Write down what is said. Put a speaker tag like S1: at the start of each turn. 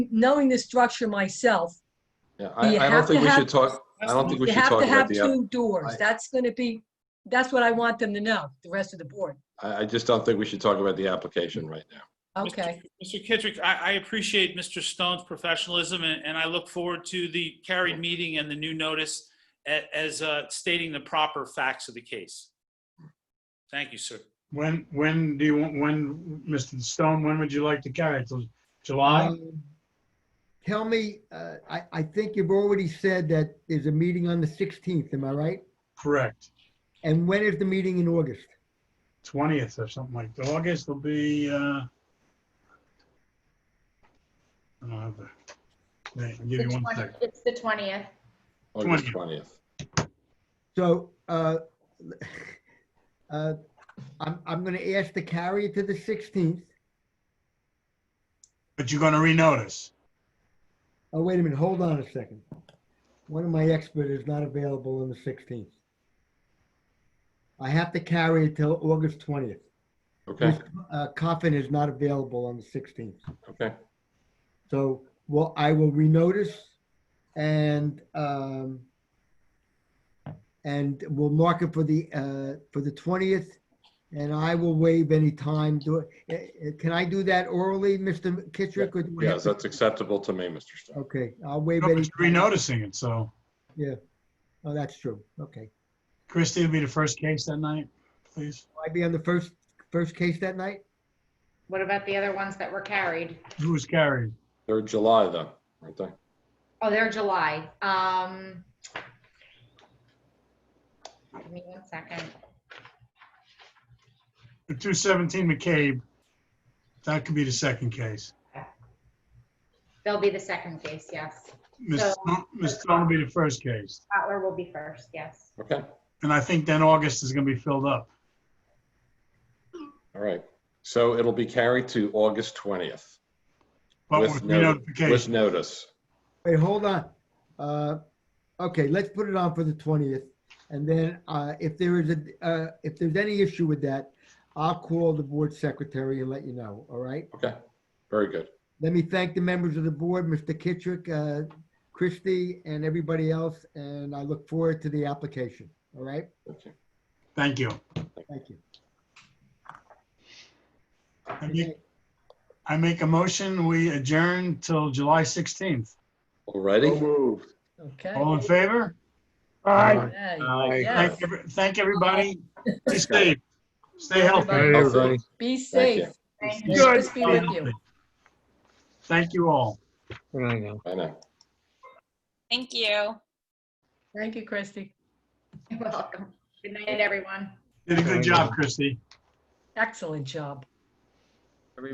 S1: knowing the structure myself,
S2: Yeah, I,
S1: You
S2: I
S1: have
S2: don't
S1: to
S2: think we
S1: have-
S2: should talk, I don't think we
S1: you
S2: should
S1: have
S2: talk
S1: to
S2: about
S1: have
S2: the, app-
S1: two doors.
S2: I-
S1: That's going to be, that's what I want them to know, the rest of the board.
S2: I, I just don't think we should talk about the application right now.
S3: Mr.
S1: Okay,
S3: Mr. Kittrick, I, I appreciate Mr. Stone's professionalism, and, and I look forward to the carried meeting and the new notice a- as uh, stating the proper facts of the case. Thank you, sir.
S4: When, when do you, want? when, Mr. Stone, when would you like to carry it? Till July?
S5: Um, Tell me, uh, I, I think you've already said that there's a meeting on the 16th, am I right?
S4: Correct.
S5: And when is the meeting in August?
S4: 20th or something like that. August will be, uh, I don't have the, wait, I'll give
S6: The
S4: you one
S6: 20
S4: sec.
S6: It's the 20th.
S2: August
S4: 20th.
S2: twentieth.
S5: So, uh, uh, I'm, I'm going to ask to carry it to the 16th.
S4: But you're going to renotice.
S5: Oh, wait a minute, hold on a second. One of my expert is not available on the 16th. I have to carry it till August 20th.
S2: Okay,
S5: Uh, Coffin is not available on the 16th.
S2: okay.
S5: So, well, I will renotice and, um, and we'll mark it for the, uh, for the twentieth. And I will waive any time. Do, eh, eh, can I do that orally, Mr. Kittrick? or do I have
S2: Yes,
S5: to-
S2: that's acceptable to me, Mr. Stone.
S5: Okay, I'll waive
S4: No,
S5: any.
S4: but you're Renoticing it, so
S5: Oh, that's true. Okay.
S4: Christie will be the first case that night, please.
S5: Will I be on the first, first case that night?
S6: What about the other ones that were carried?
S4: Who was carried?
S2: They're July though, aren't they?
S6: Oh, they're July. Um, give me one second.
S4: The 217 McCabe, that could be the second case.
S6: They'll be the second case, yes.
S4: Ms.
S6: So-
S4: Stone- Ms. Stone will be the first case.
S6: Butler will be first, yes.
S2: Okay,
S4: And I think then August is going to be filled up.
S2: all right. So it'll be carried to August twentieth
S4: But
S2: With
S4: with
S2: no- with
S4: renotification,
S2: notice.
S5: Wait, hold on. Uh, okay, let's put it on for the twentieth. And then, uh, if there is a, uh, if there's any issue with that, I'll call the board secretary and let you know, all right?
S2: Okay, very good.
S5: Let me thank the members of the board, Mr. Kittrick, uh, Christie, and everybody else, and I look forward to the application, all right?
S2: Okay.
S4: thank you.
S5: Thank you.
S4: I
S5: Good
S4: make-
S5: night.
S4: I make a motion, we adjourn till July 16th.
S2: Alrighty,
S7: moved.
S1: okay.
S4: All in favor?
S1: Hey,
S4: Thank
S1: yes.
S4: every- Thank everybody. Be safe. Stay healthy.
S1: Everybody,
S7: everybody.
S1: Be
S2: Thank you.
S1: safe.
S6: Thank
S1: May
S6: you.
S1: the Good. Christie be
S4: Stay
S1: with you.
S4: healthy. Thank you all.
S7: I know.
S2: I know.
S8: Thank you.
S1: Thank you, Christie.
S6: You're welcome. Good night, everyone.
S4: Did a good job, Christie.
S1: Excellent job.